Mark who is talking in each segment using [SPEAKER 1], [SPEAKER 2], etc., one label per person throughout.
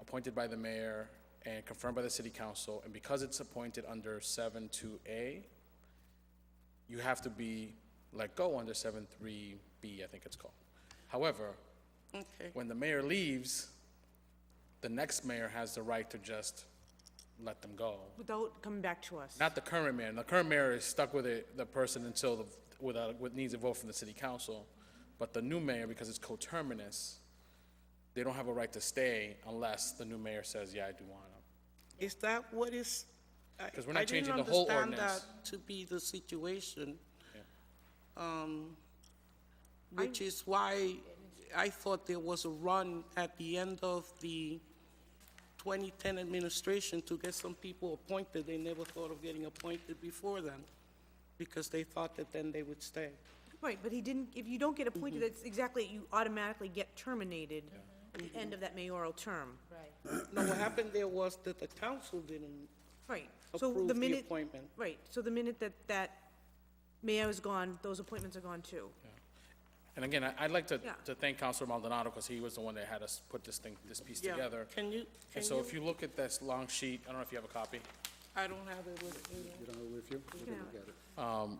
[SPEAKER 1] appointed by the mayor and confirmed by the city council, and because it's appointed under seven two A, you have to be let go under seven three B, I think it's called. However,
[SPEAKER 2] Okay.
[SPEAKER 1] when the mayor leaves, the next mayor has the right to just let them go.
[SPEAKER 3] Without coming back to us.
[SPEAKER 1] Not the current mayor. The current mayor is stuck with it, the person until the, without, with needs a vote from the city council. But the new mayor, because it's coterminous, they don't have a right to stay unless the new mayor says, yeah, I do want them.
[SPEAKER 2] Is that what is? I-
[SPEAKER 1] 'Cause we're not
[SPEAKER 2] I didn't
[SPEAKER 1] changing the whole
[SPEAKER 2] understand
[SPEAKER 1] ordinance.
[SPEAKER 2] that To be the situation. Um, Which is why I thought there was a run at the end of the 2010 administration to get some people appointed. They never thought of getting appointed before then, because they thought that then they would stay.
[SPEAKER 3] Right, but he didn't, if you don't get appointed,
[SPEAKER 1] Mm-hmm.
[SPEAKER 3] that's exactly, you automatically get terminated at the end of that mayoral term.
[SPEAKER 2] No, what happened there was that the council didn't
[SPEAKER 3] Right, so
[SPEAKER 2] approve
[SPEAKER 3] the
[SPEAKER 2] the
[SPEAKER 3] minute,
[SPEAKER 2] appointment.
[SPEAKER 3] right, so the minute that that mayor is gone, those appointments are gone too.
[SPEAKER 1] And again, I- I'd like to,
[SPEAKER 3] Yeah.
[SPEAKER 1] to thank Counselor Maldonado because he was the one that had us put this thing, this piece
[SPEAKER 2] Yeah,
[SPEAKER 1] together.
[SPEAKER 2] Can you, can
[SPEAKER 1] And so if you look at this long sheet, I don't know if you have a copy.
[SPEAKER 2] I don't have it with me.
[SPEAKER 4] You don't have it with you? You can look at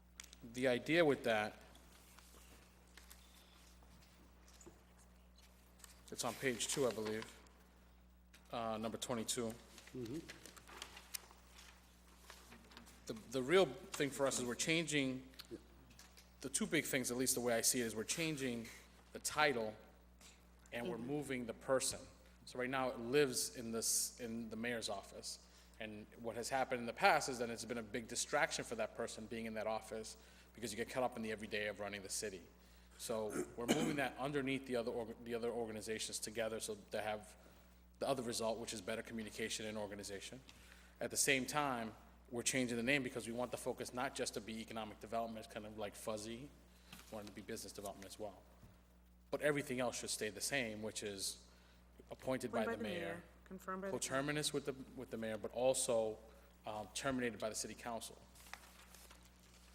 [SPEAKER 4] it.
[SPEAKER 1] the idea with that, it's on page two, I believe, uh, number 22. The, the real thing for us is we're changing, the two big things, at least the way I see it, is we're changing the title and we're moving the person. So right now, it lives in this, in the mayor's office. And what has happened in the past is that it's been a big distraction for that person being in that office because you get caught up in the everyday of running the city. So we're moving that underneath the other, org- the other organizations together so to have the other result, which is better communication and organization. At the same time, we're changing the name because we want the focus not just to be economic development, it's kind of like fuzzy, we want it to be business development as well. But everything else should stay the same, which is appointed by the mayor,
[SPEAKER 3] Confirmed by the,
[SPEAKER 1] coterminous with the, with the mayor, but also um, terminated by the city council.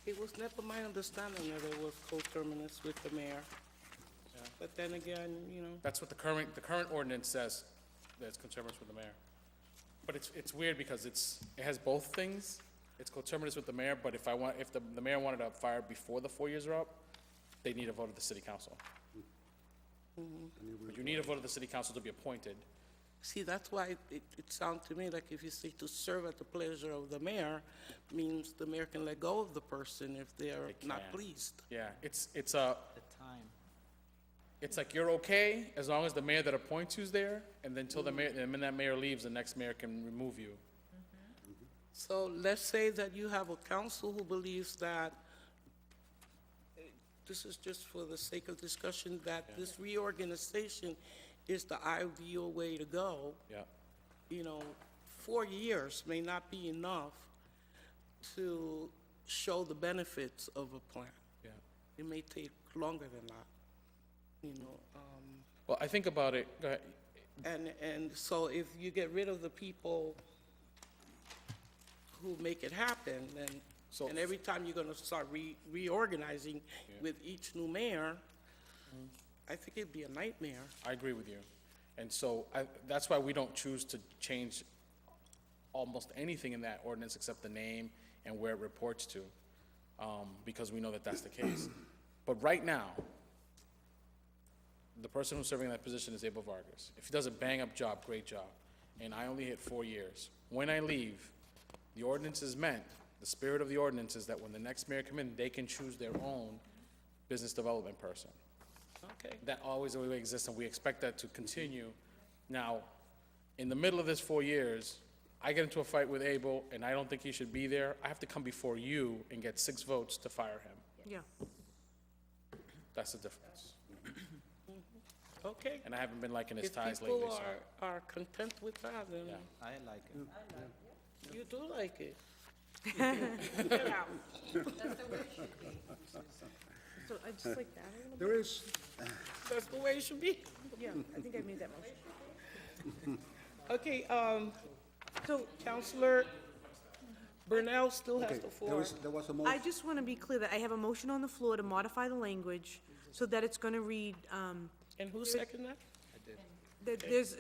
[SPEAKER 2] It was never my understanding that it was coterminous with the mayor. But then again, you know,
[SPEAKER 1] That's what the current, the current ordinance says, that it's coterminous with the mayor. But it's, it's weird because it's, it has both things. It's coterminous with the mayor, but if I want, if the, the mayor wanted to fire before the four years are up, they need a vote of the city council. But you need a vote of the city council to be appointed.
[SPEAKER 2] see, that's why it, it sounds to me like if you say to serve at the pleasure of the mayor, means the mayor can let go of the person if they're not
[SPEAKER 1] can.
[SPEAKER 2] pleased.
[SPEAKER 1] Yeah, it's, it's a,
[SPEAKER 5] the time.
[SPEAKER 1] it's like you're okay as long as the mayor that appoints you's there, and then till the mayor, and when that mayor leaves, the next mayor can remove you.
[SPEAKER 2] So let's say that you have a council who believes that, eh, this is just for the sake of discussion, that this reorganization is the ideal way to go.
[SPEAKER 1] Yeah.
[SPEAKER 2] you know, four years may not be enough to show the benefits of a plan.
[SPEAKER 1] Yeah.
[SPEAKER 2] It may take longer than that, you know. um,
[SPEAKER 1] Well, I think about it, go ahead.
[SPEAKER 2] And, and so if you get rid of the people who make it happen,
[SPEAKER 1] So-
[SPEAKER 2] then, and every time you're gonna start re- reorganizing with each new mayor,
[SPEAKER 1] Mm-hmm.
[SPEAKER 2] I think it'd be a nightmare.
[SPEAKER 1] I agree with you. And so I, that's why we don't choose to change almost anything in that ordinance except the name and where it reports to, um, because we know that that's the case. But right now, the person who's serving in that position is Abel Vargas. If he does a bang-up job, great job, and I only hit four years. When I leave, the ordinance is meant, the spirit of the ordinance is that when the next mayor come in, they can choose their own business development person
[SPEAKER 2] Okay.
[SPEAKER 1] that always, always exists, and we expect that to continue. Now, in the middle of this four years, I get into a fight with Abel, and I don't think he should be there. I have to come before you and get six votes to fire him.
[SPEAKER 3] yeah.
[SPEAKER 1] That's the difference.
[SPEAKER 2] Okay.
[SPEAKER 1] And I haven't been liking his
[SPEAKER 2] If
[SPEAKER 1] ties lately,
[SPEAKER 2] people
[SPEAKER 1] so.
[SPEAKER 2] are, are content with that, then
[SPEAKER 1] Yeah.
[SPEAKER 5] I like it.
[SPEAKER 2] You do like it.
[SPEAKER 3] So I just like that a little bit,
[SPEAKER 4] There is,
[SPEAKER 2] That's the way it should be.
[SPEAKER 3] yeah, I think I made that motion.
[SPEAKER 2] Okay, um,
[SPEAKER 3] So
[SPEAKER 2] Counselor Brunel still
[SPEAKER 4] okay,
[SPEAKER 2] has the
[SPEAKER 4] there
[SPEAKER 2] floor.
[SPEAKER 4] was, there was a
[SPEAKER 3] I
[SPEAKER 4] motion,
[SPEAKER 3] just want to be clear that I have a motion on the floor to modify the language so that it's going to read, um,
[SPEAKER 2] And who seconded that?
[SPEAKER 3] that there's